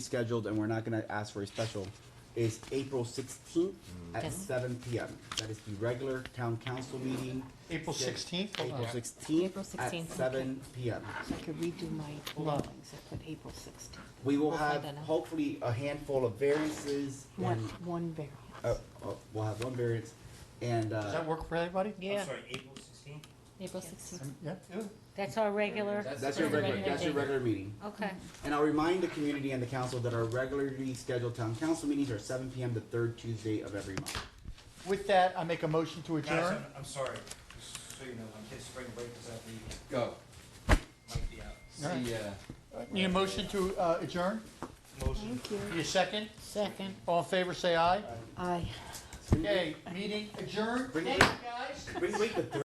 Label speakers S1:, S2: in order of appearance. S1: scheduled, and we're not gonna ask for a special, is April sixteenth at
S2: Yes.
S1: seven PM. That is the regular town council meeting.
S3: April
S1: Six-
S3: 16th?
S1: April
S3: Okay.
S2: April
S1: sixteenth at
S2: 16th,
S1: seven PM.
S2: So I could redo my
S3: on.
S2: drawings, I put April sixteenth.
S1: We will
S2: We'll find
S1: have
S2: that out.
S1: hopefully a handful of variances
S2: One,
S1: and,
S2: one variance.
S1: uh, uh, we'll have one variance and,
S3: Does that
S1: uh,
S3: work for everybody?
S4: Yeah,
S5: I'm sorry, April sixteenth?
S4: April sixteenth.
S3: Um, Yeah?
S4: That's our regular.
S1: that's your
S4: That's a
S1: regular,
S4: regular
S1: that's your
S4: meeting.
S1: regular meeting.
S4: Okay,
S1: And I'll remind the community and the council that our regularly scheduled town council meetings are seven PM the third Tuesday of every month.
S3: With that, I make a motion to
S5: Guys,
S3: adjourn.
S5: I'm, I'm sorry, just so you know, my kid's spring break is at the,
S6: Go.
S5: might be out.
S6: See
S3: Alright.
S6: ya.
S1: uh,
S3: Need a motion to uh, adjourn?
S5: Motion.
S2: Thank you.
S3: Need a second?
S4: second.
S3: All in favor, say aye.
S2: Aye.
S3: Okay, meeting adjourned.
S1: Bring-
S3: Thanks, guys.
S1: Bring, bring the